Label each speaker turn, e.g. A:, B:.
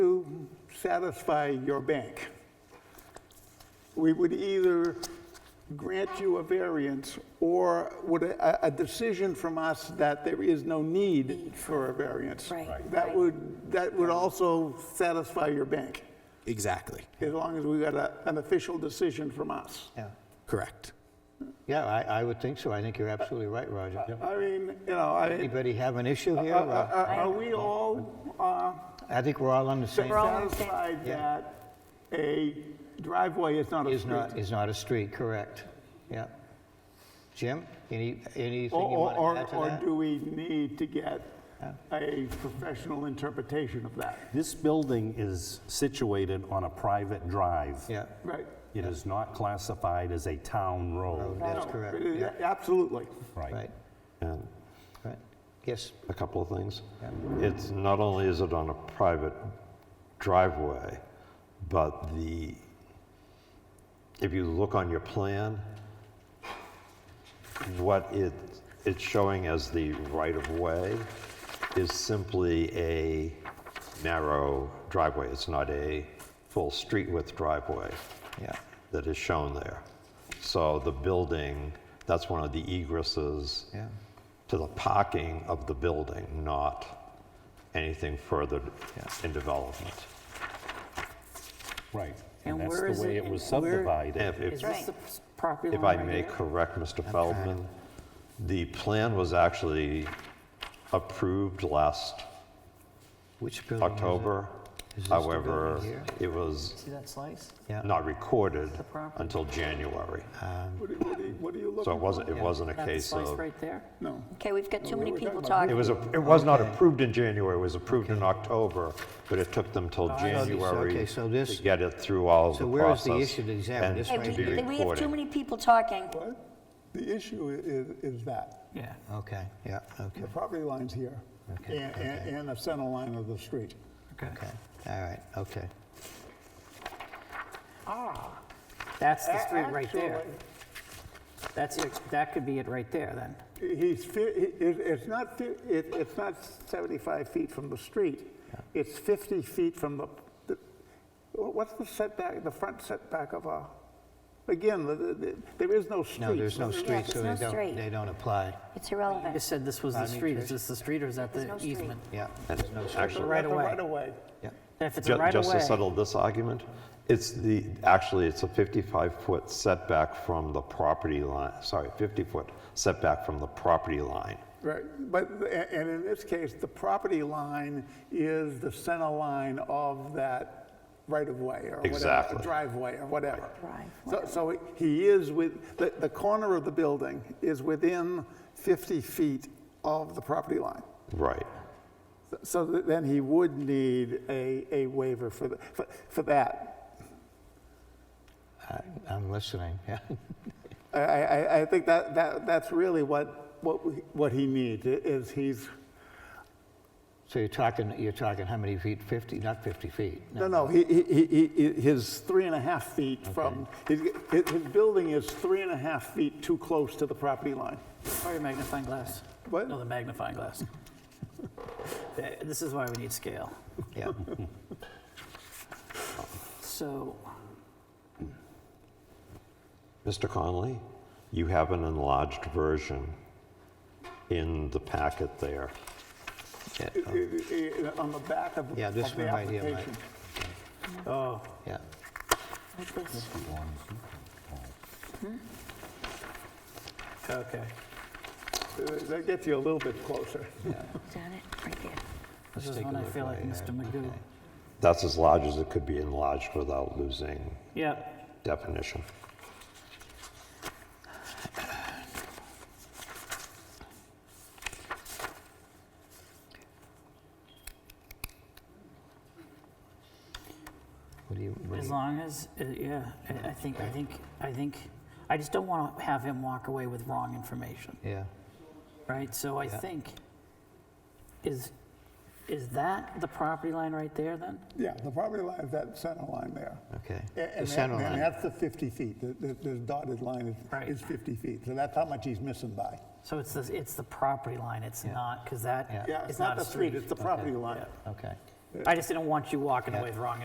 A: satisfy your bank. We would either grant you a variance or would a, a decision from us that there is no need for a variance.
B: Right.
A: That would, that would also satisfy your bank,
C: Exactly.
A: as long as we got a, an official decision from us.
D: Yeah,
C: Correct.
D: yeah, I, I would think so. I think you're absolutely right, Roger.
A: I mean, you know, I,
D: Anybody have an issue here?
A: are-
D: or-
A: are are we all uh,
D: I think we're all on the same,
B: We're all- on the same-
A: satisfied that a driveway is not a
D: is not,
A: street?
D: is not a street, correct? Yeah. Jim, any, anything
A: Or,
D: you
A: or-
D: want to
A: or,
D: add
A: or
D: to
A: do we need to get a professional interpretation of that?
E: This building is situated on a private drive.
D: that? Yeah,
A: Right?
E: It is not classified as a town road.
D: that's
A: No,
D: correct.
A: it is-
D: Yeah,
A: Absolutely.
D: Oh, Right,
F: And
D: right. Yes,
F: a couple of things. It's, not only is it on a private driveway, but the, if you look on your plan, what it, it's showing as the right-of-way is simply a narrow driveway. It's not a full street-width driveway
D: yeah,
F: that is shown there. So the building, that's one of the egresses
D: yeah,
F: to the parking of the building, not anything further in development.
E: Right.
B: And
E: And that's
B: where
E: the
B: is
E: way
B: it
E: it was
B: in- and where-
F: And
E: subdivided.
F: if-
B: Is
F: if,
B: this the property
F: if
B: line
F: I
B: right
F: may
B: here?
F: correct Mr. Feldman, the plan was actually approved last
D: Which building is it?
F: October.
D: Is this the
F: However,
D: building here?
F: it was
G: See that slice?
D: Yeah.
F: not recorded
G: property.
F: until January.
D: Ah.
A: What do- what do you- what are you
F: So it
A: looking for?
F: wasn't, it wasn't a
G: That
F: case
G: slice
F: of,
G: right there?
A: No.
B: Okay, we've got too many
A: we're
B: people
A: talking about-
F: it
B: talking.
F: was, a- it was not approved in January, it was approved in October, but it took them till
D: Oh, so this- okay,
F: January
D: so this-
F: to get it through all
D: So
F: the
D: where is
F: process.
D: the issue to examine?
F: and
D: This
B: Hey,
D: right
F: to be
B: we- We have too
F: recorded.
B: many people talking.
A: What? The issue i- is, is that,
G: Yeah.
D: Okay, yeah, okay,
A: the property line's here,
D: Okay,
A: and, and and the center line of the street.
G: Okay.
D: okay, all right, okay.
G: That's the street right there.
A: Actually,
G: That's it. That could be it right there then.
A: He's, fi- it- it's not, fi- it- it's not 75 feet from the street. It's 50 feet from the- the, what's the setback, the front setback of a, again, the- the- the- there is no street.
D: No, there's no street,
B: there's
D: so
B: no
D: they
B: street.
D: don't, they don't apply,
B: It's
G: You
B: irrelevant.
G: said this was the
D: Pardon me,
G: street.
D: Trish?
G: Is this the street or is that
B: There's no
G: the
B: street.
G: easement?
D: yeah,
F: Actually,
G: Right
A: The
G: away.
A: Right away.
D: yeah,
G: And If it's a
F: ju-
G: right of
F: just to
G: way,
F: settle this argument, it's the, actually, it's a 55-foot setback from the property line, sorry, 50-foot setback from the property line.
A: Right, but, the- a- and in this case, the property line is the center line of that right-of-way or whatever,
F: Exactly.
A: driveway or whatever.
B: Right.
A: So, so he is with, the, the corner of the building is within 50 feet of the property line.
F: Right.
A: So th- then he would need a, a waiver for, the- for- for that.
D: I- I'm listening, yeah,
A: I, I, I- I think that, that, that's really what, what, we- what he needs, i- is he's,
D: so you're talking, you're talking how many feet, 50, not 50 feet?
A: No, no, he, he, he, he- his three and a half feet from, his, his his building is three and a half feet too close to the property line.
G: or your magnifying glass.
A: What?
G: No, the magnifying glass. Th- This is why we need scale.
D: Yeah,
G: So,
F: Mr. Conley, you have an enlarged version in the packet there.
D: yeah,
A: I-
D: Oh,
A: I- I- On the back of, of the
D: Yeah, this one right here, Mike.
A: application.
G: oh,
D: yeah,
B: Like this.
G: okay.
A: Uh, That gets you a little bit closer.
B: Is that it? Right there.
G: This is
D: take a
G: when I
D: look
G: feel like
D: right
G: Mr. Magoo.
F: That's as large as it could be enlarged without losing
G: Yep.
F: definition.
D: what do you, what do
G: As
D: you-
G: long as, uh, yeah, I- I think, I think, I think, I just don't want to have him walk away with wrong information,
D: yeah,
G: right? So I think, is, is that the property line right there then?
A: Yeah, the property line is that center line there.
D: okay.
A: A- and
D: The
A: that-
D: center
A: And
D: line,
A: that's the 50 feet, the, the- the dotted line is-
G: Right.
A: is 50 feet, so that's how much he's missing by.
G: So it's the, it's the property line, it's not, because
D: Yeah.
G: that
A: Yeah,
G: is not a
A: the street,
G: street.
A: it's the property line.
D: okay.
G: I just didn't want you walking away with wrong